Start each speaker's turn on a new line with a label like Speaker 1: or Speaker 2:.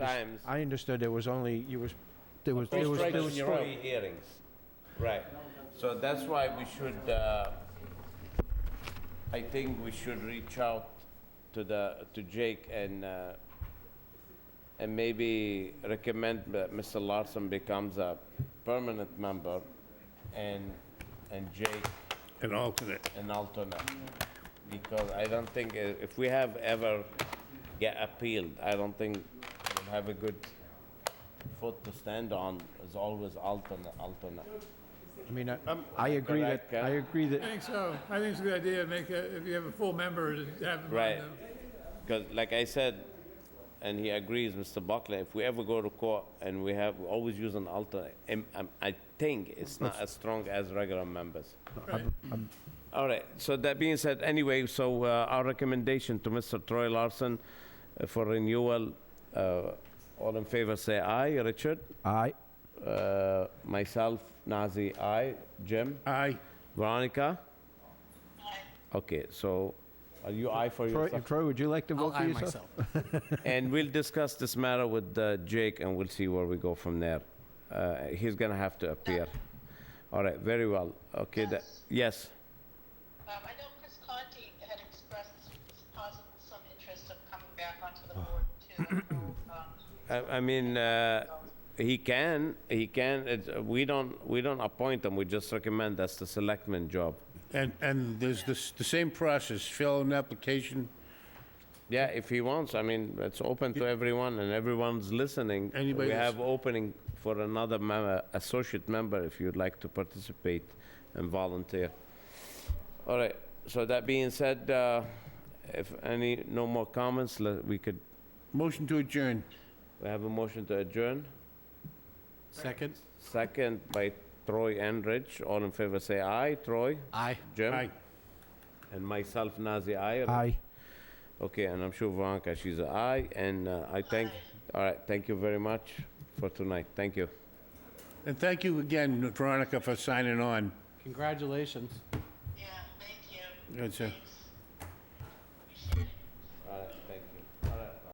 Speaker 1: times,
Speaker 2: I understood there was only, you was, there was, there was, there was
Speaker 1: restrictions,
Speaker 2: three.
Speaker 1: three hearings. Right. So that's why we should, uh, I think we should reach out to the, to Jake and, uh, and maybe recommend that Mr. Larson becomes a permanent member and, and Jake
Speaker 3: an alternate.
Speaker 1: an alternate. Because I don't think, uh, if we have ever get appealed, I don't think we'll have a good foot to stand on, is always alternate, alternate.
Speaker 2: I mean, I, I agree that,
Speaker 1: correct, yeah.
Speaker 2: Um, I agree that
Speaker 4: I think so. I think it's a good idea to make, a- if you have a full member, to have them
Speaker 1: Right.
Speaker 4: on the
Speaker 1: Because like I said, and he agrees, Mr. Buckley, if we ever go to court and we have, we always use an alternate, um, um, I think it's not as strong as regular members. All right, so that being said, anyway, so uh, our recommendation to Mr. Troy Larson uh, for renewal, uh, all in favor, say aye. Richard?
Speaker 2: I,
Speaker 1: Uh, Myself, Nazi, aye. Jim?
Speaker 3: Aye.
Speaker 1: Veronica? Okay, so are you aye for
Speaker 2: Troy,
Speaker 1: yourself?
Speaker 2: Troy, would you like to
Speaker 5: I'll
Speaker 2: vote for
Speaker 5: aye
Speaker 2: yourself?
Speaker 5: myself.
Speaker 1: And we'll discuss this matter with uh, Jake, and we'll see where we go from there. Uh, He's gonna have to appear. All right, very well. Okay, that, yes,
Speaker 6: Um, I know Chris Conti had expressed possible some interest of coming back onto the board too. I know, um,
Speaker 1: I I mean, uh, he can, he can, it's- we don't, we don't appoint him, we just recommend that's the selectman job.
Speaker 3: And, and there's this, the same process, fill an application,
Speaker 1: Yeah, if he wants, I mean, it's open to everyone, and everyone's listening.
Speaker 3: Anybody
Speaker 1: We
Speaker 3: that's-
Speaker 1: have opening for another member, associate member, if you'd like to participate and volunteer. All right, so that being said, uh, if any, no more comments, le- we could,
Speaker 3: motion to adjourn.
Speaker 1: we have a motion to adjourn.
Speaker 5: Second?
Speaker 1: Second by Troy Enrich, all in favor, say aye. Troy?
Speaker 5: Aye.
Speaker 1: Jim?
Speaker 3: Aye.
Speaker 1: And myself, Nazir, aye.
Speaker 2: Aye.
Speaker 1: Okay, and I'm sure Veronica, she's a aye, and uh, I thank, all right, thank you very much for tonight. Thank you.
Speaker 3: And thank you again, Veronica, for signing on.
Speaker 5: Congratulations.
Speaker 6: Yeah, thank you.
Speaker 3: Gotcha.
Speaker 6: Thanks.